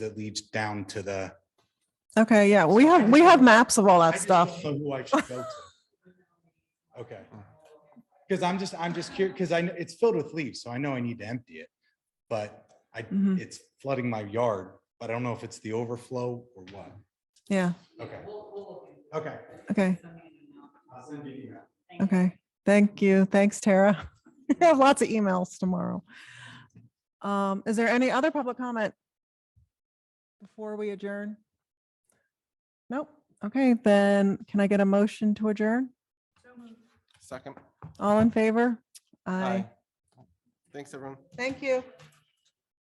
that leads down to the. Okay, yeah, we have, we have maps of all I that just don't stuff. know Who I should go to. Okay. Because I'm just, I'm just curious, because I, kn- it's filled with leaves, so I know I need to empty it. But I, Mhm. it's flooding my yard, but I don't know if it's the overflow or what. Yeah, Okay. Okay. okay, I'll send you an email. okay. Thank you. Thanks, Tara. I have lots of emails tomorrow. Um, is there any other public comment? Before we adjourn? Nope. Okay, then can I get a motion to adjourn? Second. All in favor? Aye. Thanks, everyone. Thank you.